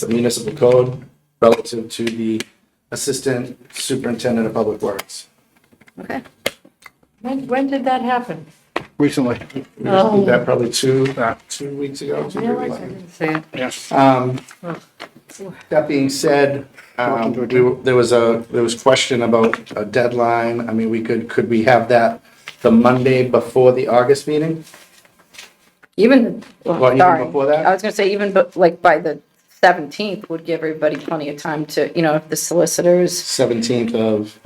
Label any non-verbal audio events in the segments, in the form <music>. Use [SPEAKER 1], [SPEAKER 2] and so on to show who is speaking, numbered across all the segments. [SPEAKER 1] the municipal code relative to the assistant superintendent of public works.
[SPEAKER 2] Okay.
[SPEAKER 3] When, when did that happen?
[SPEAKER 4] recently.
[SPEAKER 1] We just did
[SPEAKER 2] Oh.
[SPEAKER 1] that probably two, uh, two weeks ago.
[SPEAKER 3] I
[SPEAKER 1] two
[SPEAKER 3] realize I
[SPEAKER 1] weeks ago.
[SPEAKER 3] didn't see it.
[SPEAKER 4] Yes.
[SPEAKER 1] Um, That being said, um, we were- there was a, there was question about a deadline. I mean, we could, could we have that the Monday before the August meeting?
[SPEAKER 2] Even,
[SPEAKER 1] Well, even
[SPEAKER 2] sorry,
[SPEAKER 1] before that?
[SPEAKER 2] I was gonna say even, but like by the seventeenth would give everybody plenty of time to, you know, if the solicitors
[SPEAKER 1] 17th of,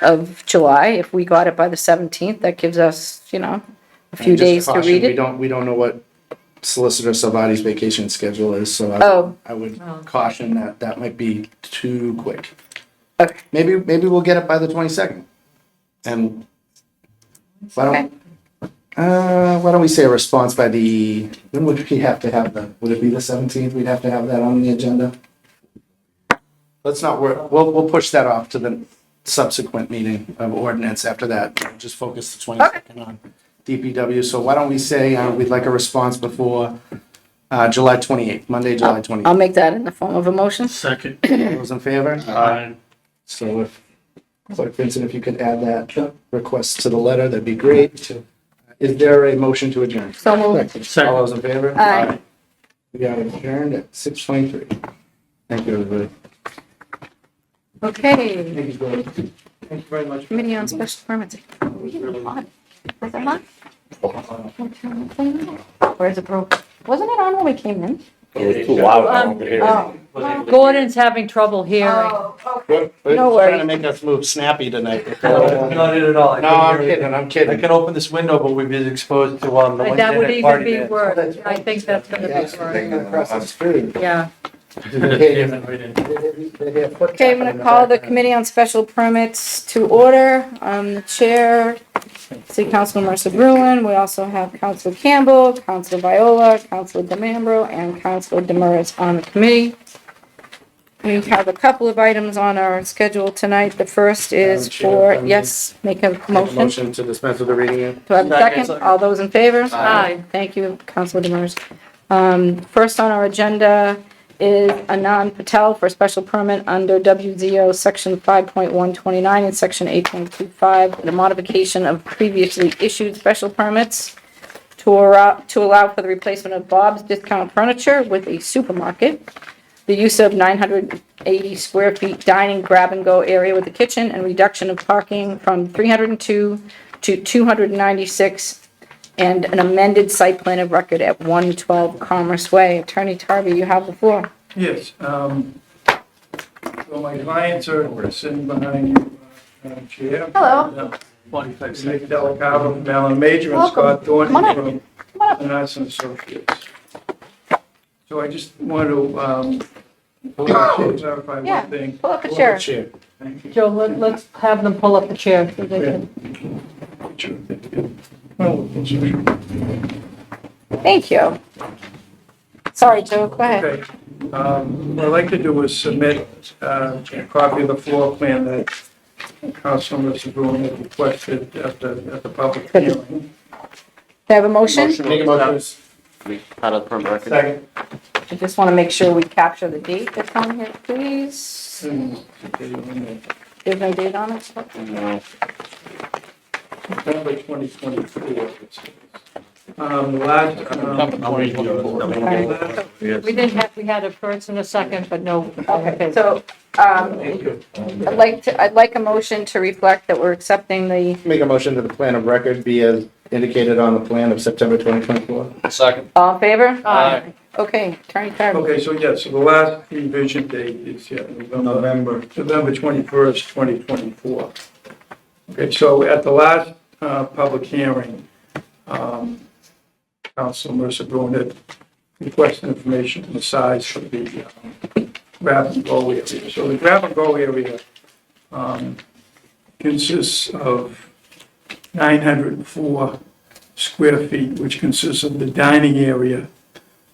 [SPEAKER 2] of July, if we got it by the seventeenth, that gives us, you know, a few
[SPEAKER 1] and just
[SPEAKER 2] days to
[SPEAKER 1] caution,
[SPEAKER 2] read
[SPEAKER 1] we
[SPEAKER 2] it.
[SPEAKER 1] don't, we don't know what Solicitor Savati's vacation schedule is, so I-
[SPEAKER 2] Oh.
[SPEAKER 1] I would
[SPEAKER 3] Oh.
[SPEAKER 1] caution that that might be too quick.
[SPEAKER 2] Okay.
[SPEAKER 1] Maybe, maybe we'll get it by the 22nd. And why
[SPEAKER 2] Okay.
[SPEAKER 1] don't, uh, why don't we say a response by the, when would we have to have the, would it be the 17th? We'd have to have that on the agenda? Let's not work, we'll, we'll push that off to the subsequent meeting of ordinance after that. We'll Just focus the 22nd on DPW. So why don't we say, uh, we'd like a response before, uh, July 28th, Monday, July 28th.
[SPEAKER 2] I'll make that in the form of a motion.
[SPEAKER 5] Second.
[SPEAKER 1] All Those in favor?
[SPEAKER 5] Aye.
[SPEAKER 1] So if Clerk Vincent, if you could add that request to the letter, that'd be great. Is there a motion to adjourn?
[SPEAKER 2] So moved.
[SPEAKER 5] Second.
[SPEAKER 1] All those in favor?
[SPEAKER 2] Aye.
[SPEAKER 1] We are adjourned at six twenty-three. Thank you, everybody.
[SPEAKER 2] Okay,
[SPEAKER 1] Thank you, Gordon. Thank you very much.
[SPEAKER 2] committee on special permits. Are we getting a lot? Was it not? Or is it broke? Wasn't it on when we came in?
[SPEAKER 6] It was too loud over here.
[SPEAKER 2] Oh,
[SPEAKER 3] Gordon's having trouble hearing.
[SPEAKER 2] No
[SPEAKER 1] Trying
[SPEAKER 2] worries.
[SPEAKER 1] to make us move snappy tonight. <laughs>
[SPEAKER 5] Not it at all. I couldn't
[SPEAKER 1] No, I'm
[SPEAKER 5] hear anything.
[SPEAKER 1] kidding, I'm
[SPEAKER 5] I
[SPEAKER 1] kidding.
[SPEAKER 5] can open this window, but we've been exposed to um, the
[SPEAKER 3] Like,
[SPEAKER 5] one
[SPEAKER 3] That would
[SPEAKER 5] tenant
[SPEAKER 3] even
[SPEAKER 5] party <laughs>
[SPEAKER 3] be
[SPEAKER 5] there.
[SPEAKER 3] worse. I think that's gonna
[SPEAKER 1] Yeah, it's
[SPEAKER 3] be
[SPEAKER 1] right
[SPEAKER 3] worse.
[SPEAKER 1] across the street.
[SPEAKER 3] Yeah.
[SPEAKER 5] Yeah, right in.
[SPEAKER 2] Okay, I'm gonna call the Committee on Special Permits to order. I'm the chair, City Council Marissa Bruin. We also have Council Campbell, Council Viola, Council DeMambro, and Council Demers on the committee. We have a couple of items on our schedule tonight. The first is
[SPEAKER 1] Madam Chair,
[SPEAKER 2] for,
[SPEAKER 1] if I may.
[SPEAKER 2] yes, make a
[SPEAKER 1] Make a
[SPEAKER 2] motion.
[SPEAKER 1] Motion to dispense with the reading.
[SPEAKER 2] Do I have a
[SPEAKER 5] Second.
[SPEAKER 2] second? All those in favor?
[SPEAKER 3] Aye.
[SPEAKER 2] Thank you, Councilor Demers. Um, first on our agenda is Anand Patel for special permit under WZO Section five point one twenty-nine and Section eight point two five, the modification of previously issued special permits to allow, to allow for the replacement of Bob's Discount Furniture with a supermarket, the use of nine hundred eighty square feet dining grab-and-go area with a kitchen, and reduction of parking from three hundred and two to two hundred and ninety-six, and an amended site plan of record at one twelve Commerce Way. Attorney Tarby, you have the floor.
[SPEAKER 7] Yes, um, so my clients are sitting behind you, uh, Madam Chair.
[SPEAKER 2] Hello.
[SPEAKER 5] Forty-five
[SPEAKER 7] Nick
[SPEAKER 5] seconds.
[SPEAKER 7] Delacava from Allen Major and
[SPEAKER 2] Welcome.
[SPEAKER 7] Scott
[SPEAKER 2] Come on up.
[SPEAKER 7] Thornton
[SPEAKER 2] Come on up.
[SPEAKER 7] from Arts and Associates. So I just want to, um, <coughs> clarify
[SPEAKER 2] Yeah.
[SPEAKER 7] one thing.
[SPEAKER 2] Pull up a chair.
[SPEAKER 1] Chair.
[SPEAKER 7] Thank you.
[SPEAKER 3] Joe, let, let's have them pull up the chair so they can.
[SPEAKER 7] Well, it's a-
[SPEAKER 2] Thank you. Sorry, Joe, go ahead.
[SPEAKER 7] Okay. Um, What I'd like to do is submit uh, a copy of the floor plan that Councilman Sabun had requested at the, at the public hearing.
[SPEAKER 2] Do I have a motion?
[SPEAKER 1] Make a motion.
[SPEAKER 6] Out of the record.
[SPEAKER 7] Second.
[SPEAKER 2] I just want to make sure we capture the date that's on here, please. There's no date on it?
[SPEAKER 6] No.
[SPEAKER 7] November 2024. Um, the last, um,
[SPEAKER 2] Okay.
[SPEAKER 3] We didn't have, we had a first and a second, but no.
[SPEAKER 2] Okay, so, um, I'd like to, I'd like a motion to reflect that we're accepting the,
[SPEAKER 1] Make a motion to the plan of record be as indicated on the plan of September twenty twenty-four.
[SPEAKER 6] Second.
[SPEAKER 2] all in favor?
[SPEAKER 3] Aye.
[SPEAKER 2] Okay, Attorney Tarby.
[SPEAKER 7] okay, so yes, so the last revision date is, yeah, November, November 21st, 2024. Okay, so at the last uh, public hearing, um, Council Mercer Bruin had requested information on the size of the um, grab and go area. So the grab and go area um, consists of 904 square feet, which consists of the dining area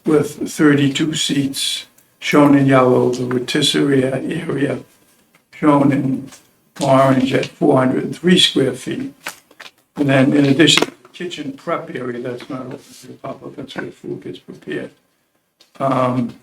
[SPEAKER 7] with 32 seats shown in yellow, the rotisserie area shown in orange at 403 square feet. And then in addition, the kitchen prep area, that's not open to the public, that's where food gets prepared. Um,